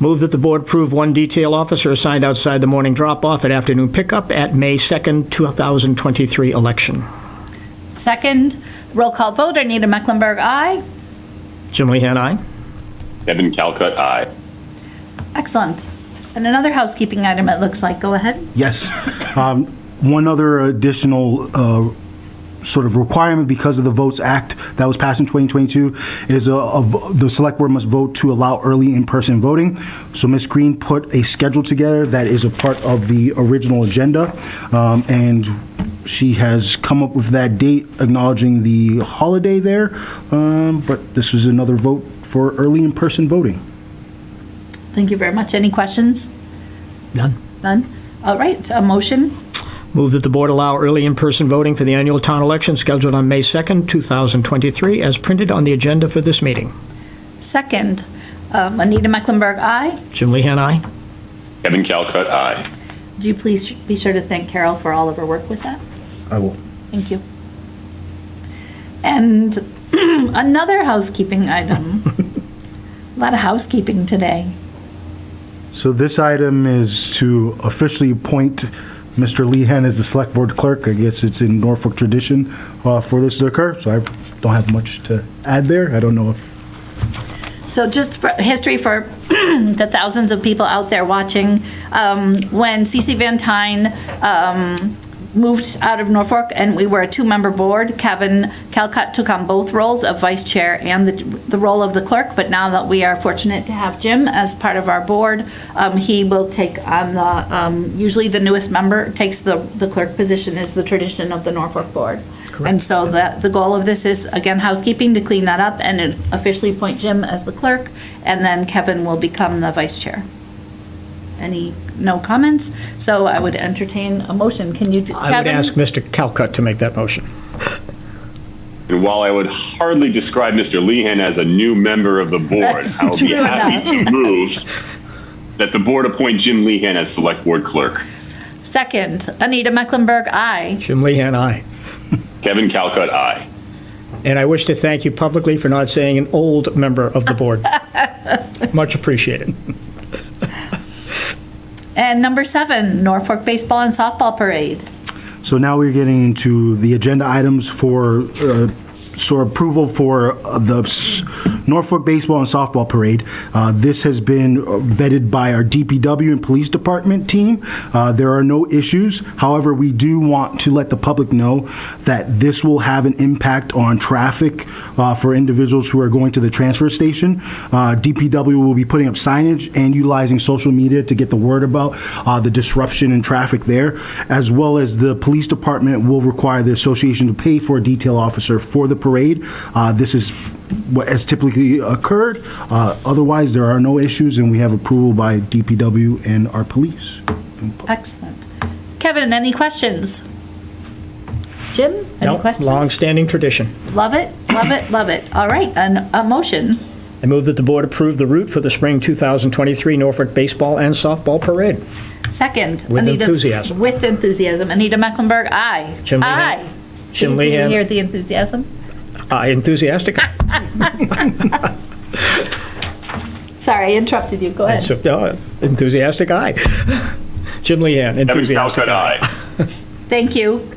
Move that the board approve one detail officer assigned outside the morning drop-off and afternoon pickup at May 2nd, 2023 election. Second, roll call vote, Anita Mecklenburg, aye. Jim Lehan, aye. Kevin Calcutt, aye. Excellent. And another housekeeping item, it looks like, go ahead. Yes. Um, One other additional uh, sort of requirement because of the Votes Act that was passed in 2022 is a- a v- the Select Board must vote to allow early in-person voting. So Ms. Green put a schedule together that is a part of the original agenda, um, and she has come up with that date acknowledging the holiday there, Um, but this is another vote for early in-person voting. Thank you very much. Any questions? None. None? All right, a motion. Move that the board allow early in-person voting for the annual town election scheduled on May 2nd, 2023, as printed on the agenda for this meeting. Second, um, Anita Mecklenburg, aye. Jim Lehan, aye. Kevin Calcutt, aye. Would you please be sure to thank Carol for all of her work with that? I will. Thank you. And another housekeeping item. A lot of housekeeping today. So this item is to officially appoint Mr. Lehan as the Select Board Clerk. I guess it's in Norfolk tradition uh, for this to occur, so I don't have much to add there. I don't know if, So just for history for the thousands of people out there watching, um, when CC Van Tine um, moved out of Norfolk and we were a two-member board, Kevin Calcutt took on both roles of vice chair and the, the role of the clerk, but now that we are fortunate to have Jim as part of our board, um, he will take on the, um, usually the newest member takes the, the clerk position is the tradition of the Norfolk board. And so the, the goal of this is, again, housekeeping, to clean that up and officially appoint Jim as the clerk, and then Kevin will become the vice chair. Any, no comments? So I would entertain a motion. Can you, do- Kevin? I would ask Mr. Calcutt to make that motion. And while I would hardly describe Mr. Lehan as a new member of the board, That's I will be true happy to move that the board appoint Jim Lehan as select board clerk. Second, Anita Mecklenburg, aye. Jim Lehan, aye. Kevin Calcutt, aye. And I wish to thank you publicly for not saying an old member of the board. Much appreciated. And number seven, Norfolk Baseball and Softball Parade. so now we're getting into the agenda items for, uh, so approval for uh, the s- Norfolk Baseball and Softball Parade. Uh, This has been uh, vetted by our DPW and Police Department team. Uh, There are no issues. However, we do want to let the public know that this will have an impact on traffic uh, for individuals who are going to the transfer station. Uh, DPW will be putting up signage and utilizing social media to get the word about uh, the disruption in traffic there, as well as the police department will require the association to pay for a detail officer for the parade. Uh, This is what has typically occurred. Uh, Otherwise, there are no issues, and we have approval by DPW and our police. Excellent. Kevin, any questions? Jim, any questions? Long-standing tradition. Love it, love it, love it. All right, an, a motion. I move that the board approve the route for the spring 2023 Norfolk Baseball and Softball Parade. Second. With Anita- enthusiasm. With enthusiasm. Anita Mecklenburg, aye. Jim Lehan. Aye. Jim Did you Lehan. hear the enthusiasm? Aye, Ah, enthusiastic. Sorry, I interrupted you. Go ahead. So, uh, Enthusiastic, aye. Jim Lehan, Kevin enthusiastic, Calcutt, aye. aye. Thank you.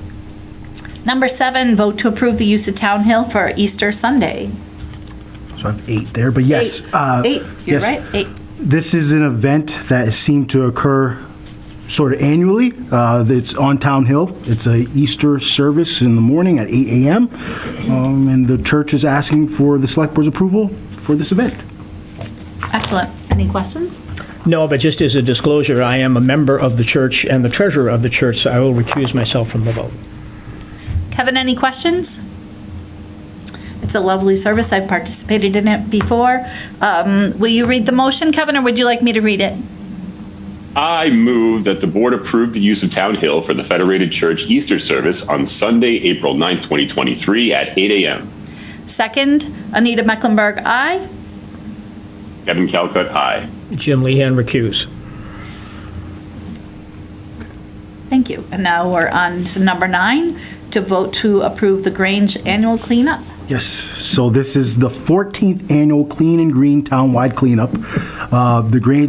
Number seven, vote to approve the use of Town Hill for Easter Sunday. So I have eight there, but yes. Eight. uh, Eight, you're yes. right, eight. This is an event that seemed to occur sort of annually. Uh, It's on Town Hill. It's a Easter service in the morning at 8 AM. um, And the church is asking for the Select Board's approval for this event. Excellent. Any questions? No, but just as a disclosure, I am a member of the church and the treasurer of the church, so I will recuse myself from the vote. Kevin, any questions? It's a lovely service. I've participated in it before. Um, Will you read the motion, Kevin, or would you like me to read it? I move that the board approve the use of Town Hill for the Federated Church Easter service on Sunday, April 9th, 2023 at 8 a.m. Second, Anita Mecklenburg, aye. Kevin Calcutt, aye. Jim Lehan recuse. Thank you. And now we're on to number nine, to vote to approve the Grange annual cleanup. Yes, so this is the 14th Annual Clean and Green Townwide Cleanup. Uh, The Grange